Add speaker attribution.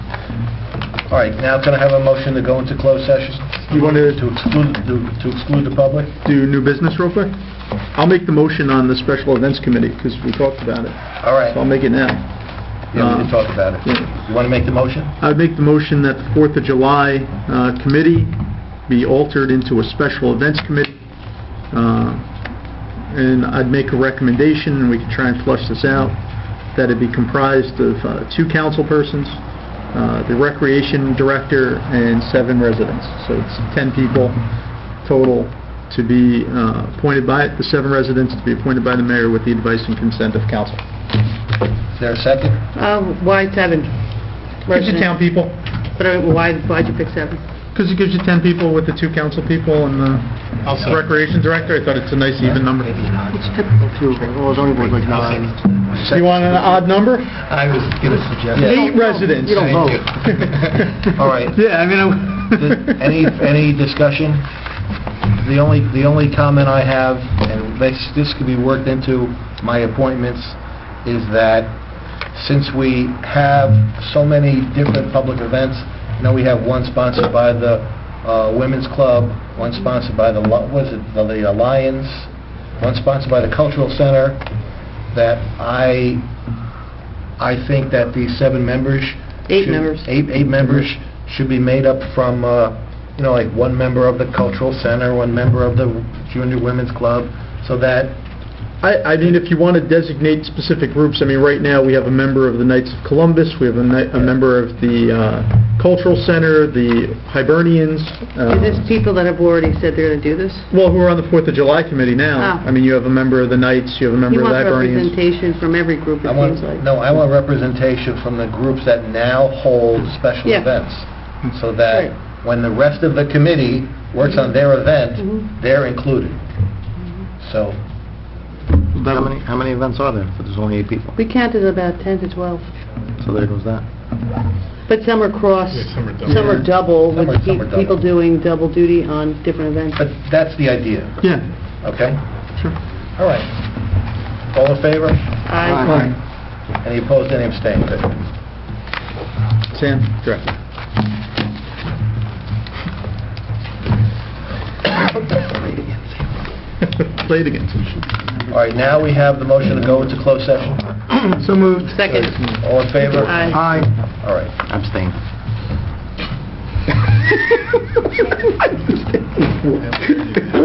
Speaker 1: All right, now can I have a motion to go into closed session?
Speaker 2: You want to
Speaker 1: To exclude, to- to exclude the public?
Speaker 2: do new business real quick? I'll make the motion on the special events committee, because we talked about it,
Speaker 1: All right,
Speaker 2: so I'll make it now.
Speaker 1: yeah, we can talk about it.
Speaker 2: Um, Yeah.
Speaker 1: You want to make the motion?
Speaker 2: I'd make the motion that the Fourth of July uh, committee be altered into a special events committee, uh, and I'd make a recommendation, and we could try and flush this out, that it be comprised of uh, two council persons, uh, the recreation director, and seven residents. So it's 10 people total to be uh, appointed by, the seven residents to be appointed by the mayor with the advice and consent of council.
Speaker 1: Is there a second?
Speaker 3: Uh, Why seven?
Speaker 2: Gives you 10 people,
Speaker 3: But uh, why, why'd you pick seven?
Speaker 2: because it gives you 10 people with the two council people and the... Recreation Director, I thought it's a nice even number. You
Speaker 1: Well, zoning board like nine.
Speaker 2: want an odd number?
Speaker 1: I was going to suggest.
Speaker 2: Eight residents.
Speaker 1: You don't vote. All right.
Speaker 2: Yeah, I mean,
Speaker 1: Th-
Speaker 2: I...
Speaker 1: Any, any discussion? The only, the only comment I have, and this, this could be worked into my appointments, is that since we have so many different public events, now we have one sponsored by the uh, Women's Club, one sponsored by the, Lo- was it, the the Lions, one sponsored by the Cultural Center, that I, I think that these seven members...
Speaker 3: Eight
Speaker 1: should-
Speaker 3: members.
Speaker 1: Eight, eight members should be made up from, uh, you know, like one member of the Cultural Center, one member of the Junior Women's Club, so that,
Speaker 2: I, I mean, if you want to designate specific groups, I mean, right now, we have a member of the Knights of Columbus, we have a ni- a member of the uh, Cultural Center, the Hibernians, uh,
Speaker 3: Is this people that have already said they're gonna do this?
Speaker 2: well, who are on the Fourth of July Committee now.
Speaker 3: Ah.
Speaker 1: Oh.
Speaker 2: I mean, you have a member of the Knights, you have a member
Speaker 3: You
Speaker 2: of the
Speaker 3: want
Speaker 2: Hibernians.
Speaker 3: representation from every group,
Speaker 1: I
Speaker 3: it
Speaker 1: want,
Speaker 3: seems like.
Speaker 1: no, I want representation from the groups that now hold special
Speaker 3: Yeah.
Speaker 1: events, so
Speaker 3: Right.
Speaker 1: that when the rest of the committee works on their
Speaker 3: Mhm.
Speaker 1: event, they're included.
Speaker 3: Mm-hmm.
Speaker 1: So,
Speaker 2: That
Speaker 4: How
Speaker 2: would-
Speaker 4: many, how many events are there? If there's only eight people,
Speaker 3: We counted about 10 to 12,
Speaker 4: so there goes that.
Speaker 3: but some are cross, some are
Speaker 2: Yeah.
Speaker 3: double,
Speaker 1: Some
Speaker 3: with
Speaker 1: are- some are
Speaker 3: pe- people
Speaker 1: double.
Speaker 3: doing double duty on different events.
Speaker 1: but that's the idea,
Speaker 2: Yeah,
Speaker 1: okay?
Speaker 2: sure.
Speaker 1: All right. All in favor?
Speaker 3: I-
Speaker 2: All right.
Speaker 1: Any opposed, any abstained? Good.
Speaker 2: Sam, director. Play it again.
Speaker 1: All right, now we have the motion to go into closed session.
Speaker 2: So moved.
Speaker 3: Second.
Speaker 1: All in favor?
Speaker 3: Aye.
Speaker 4: Aye.
Speaker 1: All right.
Speaker 4: Abstain.